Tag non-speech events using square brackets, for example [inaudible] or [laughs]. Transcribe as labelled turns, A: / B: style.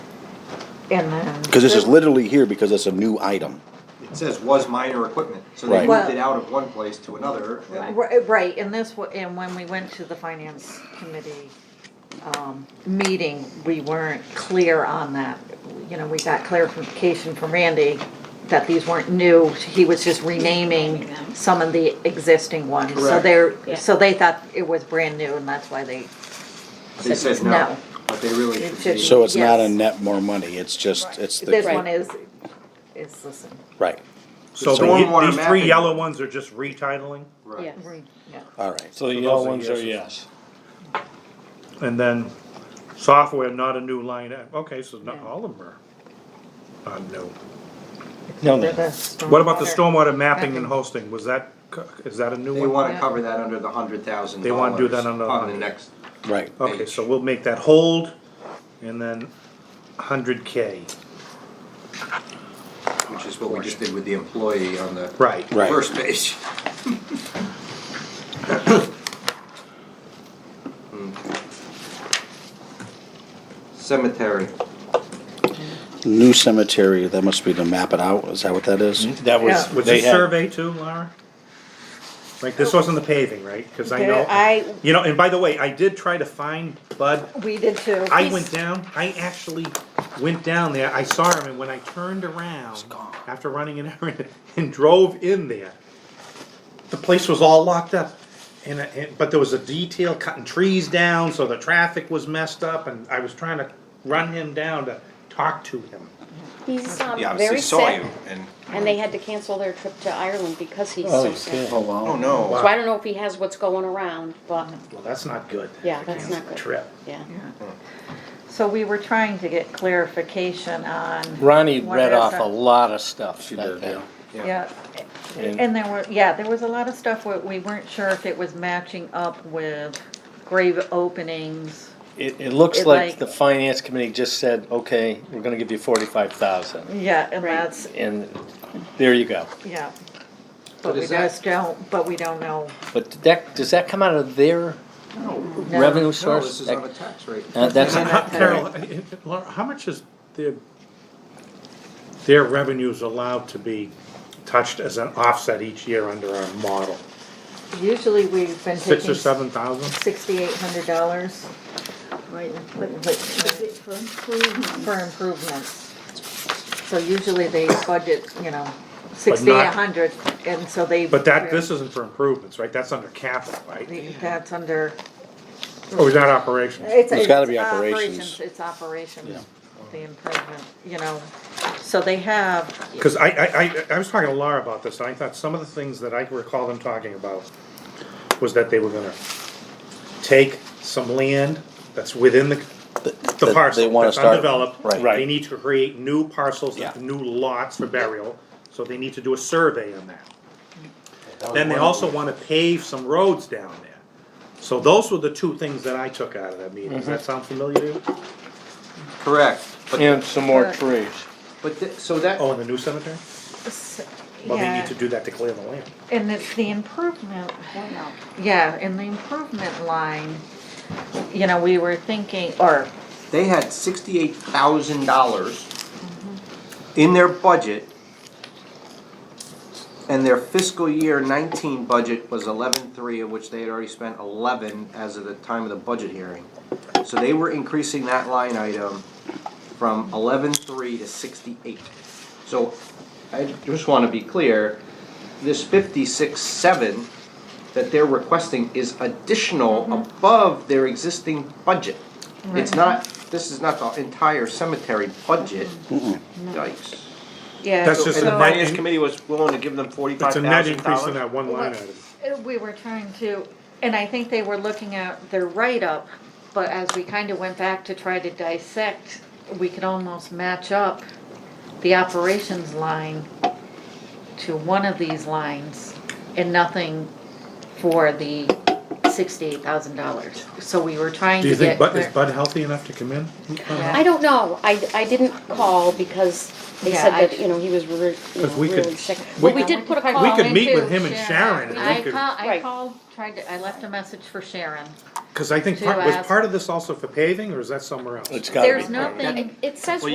A: and then.
B: Because this is literally here because it's a new item.
C: It says was minor equipment, so they
B: Right.
C: moved it
A: Well-
C: out of one place to another. and-
A: Ri- Right, and this, wa- and when we went to the finance committee, um, meeting, we weren't clear on that. You know, we got clarification from Randy that these weren't new, he was just renaming some of the existing ones. So
C: Correct.
A: they're, so they thought it was brand new and that's why they,
C: They said no,
A: No.
C: but they really
A: It
C: should be.
A: should
B: So it's not a
A: Yes.
B: net more money, it's just, it's
A: this
B: the,
A: one is, is, listen,
B: right,
D: So the-
C: Stormwater
D: these three
C: mapping.
D: yellow ones are just retitling,
C: Right.
E: Yes.
A: re- yeah.
B: all right.
F: So the
D: So
F: yellow
D: those are
F: ones are yes.
D: yeses. and then software, not a new line, item. okay, so not all of them are not new.
F: No,
A: They're
F: no.
A: the
D: What about the
A: stormwater-
D: stormwater mapping
A: Mapping.
D: and hosting, was that, co- is that a new
C: They
D: one?
C: wanna cover that under the hundred thousand
D: They wanna do that
C: dollars
D: under the
C: on the
D: 100.
C: next.
B: Right,
D: Okay, so we'll make that hold, and then hundred K,
C: Which is what we just did with the employee on the
D: right.
B: Right.
C: first page. [laughs] Hmm. Cemetery,
B: new cemetery, that must be to map it out, is that what that is?
F: That was,
A: Yeah.
D: Was
F: they
D: this
F: had,
D: survey too, Laura? Like, this wasn't the paving, right? Cause I
A: There-
D: know,
A: I-
D: you know, and by the way, I did try to find Bud
A: We did too.
D: I
A: He's-
D: went down, I actually went down there, I saw him, and when I turned around, after running an errand, [laughs] and drove in there, the place was all locked up. And, I- and, but there was a detail cutting trees down, so the traffic was messed up, and I was trying to run him down to talk to him.
E: He's um,
C: yeah, obviously
E: very
C: saw
E: sick,
C: you and,
E: and they had to cancel their trip to Ireland because he's
F: oh,
E: so sick.
F: yeah.
E: So
C: oh no,
D: Wow.
E: I don't know if he has what's going around, but,
D: Well, that's not good.
E: Yeah,
D: to
E: that's
D: cancel
E: not
D: the
E: good.
D: Trip.
E: yeah.
A: So we were trying to get clarification on.
F: Ronnie
A: what
F: read
A: is
F: off a
A: that-
F: lot of stuff
B: She
F: that
B: did,
F: day.
B: yeah.
A: Yeah,
F: And
A: and there were, yeah, there was a lot of stuff where we weren't sure if it was matching up with grave openings.
F: it, it looks
A: it
F: like
A: like-
F: the finance committee just said, okay, we're gonna give you forty-five thousand.
A: Yeah, and
E: Right.
A: that's,
F: And there you go.
A: yeah.
C: But
A: But we
C: is that-
A: just don't, but we don't know.
F: But that, does that come out of their
C: no,
A: No.
F: revenue
C: no,
F: source?
C: this is
F: That-
C: on a tax rate.
F: uh,
A: [laughs]
F: That's,
D: How- Carol,
F: Right.
D: uh, uh, Laura, how much is their, their revenues allowed to be touched as an offset each year under our model?
A: Usually we've been
D: Six or
A: taking
D: seven thousand?
A: sixty-eight hundred dollars
G: Right, but is
A: for
G: it for improvement?
A: improvements. So usually they budget, you know, sixty,
D: not-
A: a hundred, and so they.
D: But that, this isn't for improvements, right? That's under capital, right?
A: That's under.
D: Or is that operations?
B: It's gotta be operations.
A: It's operations, the improvement, you know, so they have,
D: Cause I, I, I, I was talking to Laura about this, and I thought some of the things that I recall them talking about was that they were gonna take some land that's within the, the
B: they
D: parcel
B: wanna
D: that's
B: start-
D: undeveloped.
B: right.
D: They need to create new parcels,
B: Yeah.
D: new lots for burial, so they need to do a survey on that. Then they also wanna pave some roads down there. So those were the two things that I took out of that meeting. Does that sound familiar to you?
C: Correct, but,
F: and some more trees.
C: but, th- so that,
D: Oh, in the new cemetery?
A: s-
D: Well, they need
A: yeah,
D: to do that to clear the land.
A: and it's the improvement,
G: Well, no.
A: yeah, in the improvement line, you know, we were thinking, or,
C: they had sixty-eight thousand dollars in their budget. And their fiscal year nineteen budget was eleven-three, of which they had already spent eleven as of the time of the budget hearing. So they were increasing that line item from eleven-three to sixty-eight. So I just wanna be clear, this fifty-six-seven that they're requesting is additional above their existing budget. It's not, this is not the entire cemetery budget. Yikes.
A: yeah.
D: That's just
C: And the
D: So-
C: finance committee was willing to give them forty-five
D: It's a
C: thousand
D: net
C: dollars?
D: increase in that one line item.
A: Uh, We were trying to, and I think they were looking at their write-up, but as we kind of went back to try to dissect, we could almost match up the operations line to one of these lines and nothing for the sixty-eight thousand dollars. So we were trying
D: Do
A: to
D: you
A: get.
D: think Bud, is
A: clear-
D: Bud healthy enough to come in?
A: Yeah.
E: I don't know, I, I didn't call because they
A: Yeah,
E: said
A: I-
E: that, you know, he was re- you know,
D: If we could-
E: really sick.
D: we
E: But we
D: could-
E: did put a
A: We
E: call
D: We could
E: in.
D: meet with him and Sharon and
A: I
D: we could,
A: called, I
E: Right.
A: called, tried to, I left a message for Sharon.
D: cause I think
A: to
D: part, was
A: ask-
D: part of this also for paving or is that somewhere else?
F: It's gotta be.
A: There's nothing.
E: It says